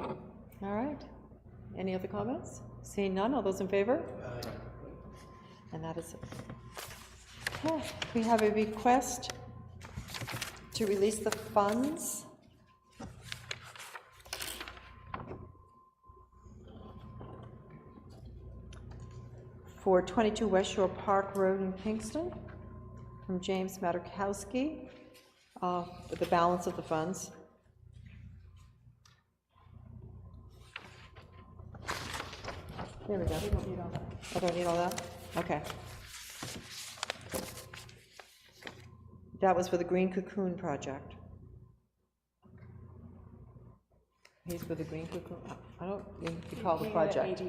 All right. Any other comments? Seeing none, all those in favor? And that is it. Okay, We have a request to release the funds. For 22 West Shore Park Road in Kingston, from James Matukowski, uh, the balance of the funds. There we go. I don't need all that? Okay. That was for the Green Cocoon Project. He's for the Green Cocoon, I don't recall the project.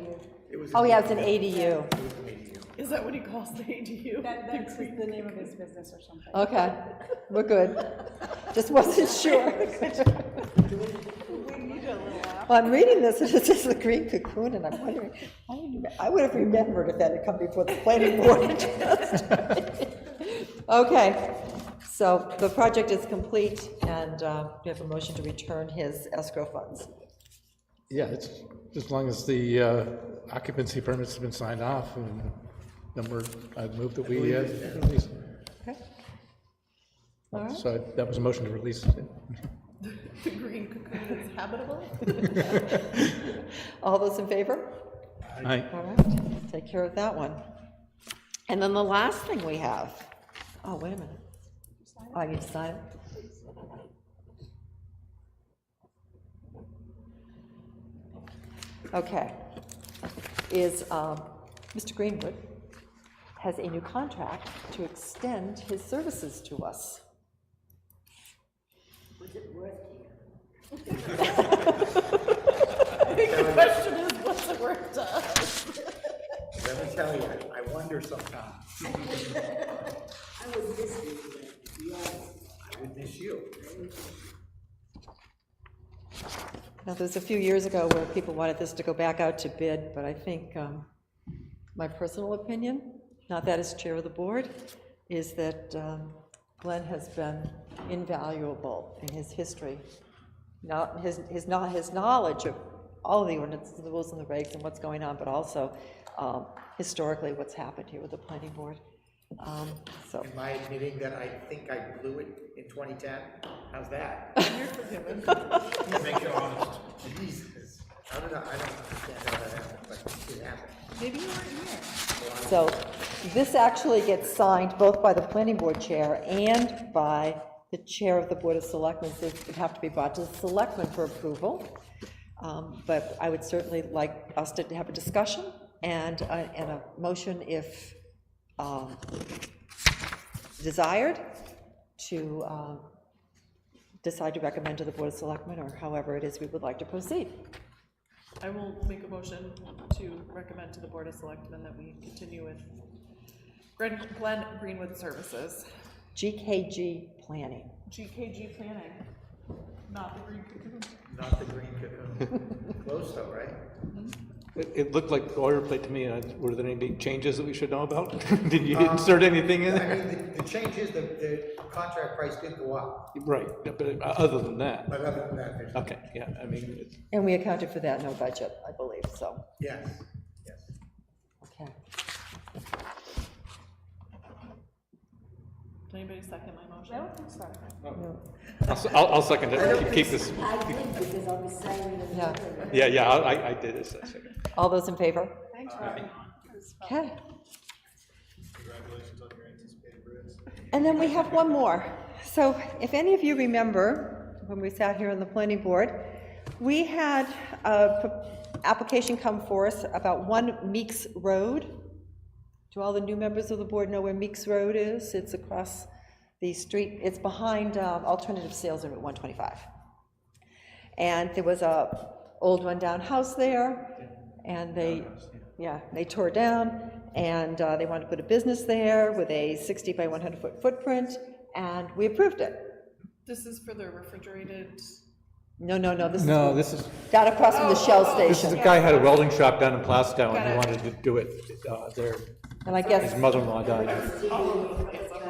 Oh, yeah, it's an ADU. Is that what he calls the ADU? That, that's the name of his business or something. Okay, we're good. Just wasn't sure. Well, I'm reading this, and it says the green cocoon, and I'm wondering, I would- I would have remembered if that had come before the planning board. Okay, so the project is complete, and uh, we have a motion to return his escrow funds. Yeah, it's, as long as the uh, occupancy permits have been signed off, and then we're, I'd move that we uh, release. Okay? All right. So that was a motion to release. The green cocoon is habitable? All those in favor? Aye. All right, take care of that one. And then the last thing we have, oh, wait a minute. Oh, you decide? Okay. Is, um, Mr. Greenwood has a new contract to extend his services to us. The question is, what's it worth to us? Let me tell you, I wonder sometimes. I would miss you. Now, there's a few years ago where people wanted this to go back out to bid, but I think um, my personal opinion, not that as chair of the board, is that um, Glenn has been invaluable in his history, not, his, his, not his knowledge of all the ordinances, the rules and the regs and what's going on, but also um, historically what's happened here with the planning board. Um, So, Am I admitting that I think I blew it in 2010? How's that? Make you honest. Jesus. I don't know, I don't understand how that happened, but it happened. Maybe you weren't here. So this actually gets signed both by the planning board chair and by the chair of the Board of Selectmen. So It would have to be brought to the selectmen for approval. Um, But I would certainly like us to have a discussion and, a- and a motion if um, desired to um, decide to recommend to the Board of Selectmen or however it is we would like to proceed. I will make a motion to recommend to the Board of Selectmen that we continue with Glen Glen Greenwood Services, GKG planning. GKG Planning, not the green cocoon. Not the green cocoon. Close though, right? It, it looked like boilerplate to me. Uh, Were there any big changes that we should know about? Did you Uh, insert anything in I there? mean, the- the change is the, the contract price did go up, Right, but uh, other than that, but other than that, there's, okay, yeah, I mean, it's- And we accounted for that in our budget, I believe, so. yes, yes. Okay. Did anybody second my motion? I don't think so. I'll, s- I'll I'll second it. Keep- Keep this, I did because I was signing it. Yeah. yeah, yeah, I, I- I did this, I second. All those in favor? Thanks, Robbie. Okay. And then we have one more. So if any of you remember, when we sat here on the planning board, we had a p- application come for us about One Meeks Road. Do all the new members of the board know where Meeks Road is? It's across the street, it's behind um, Alternative Sales on Route 125. And there was a old rundown house there, and they, yeah, they tore it down, and uh, they wanted to put a business there with a 60 by 100 foot footprint, and we approved it. This is for the refrigerated, No, no, no, this is No, this is, down across from the Shell this is, the station. guy had a welding shop down in Plastow and Got it. he wanted to do it uh, there. And I His guess, mother-in-law died.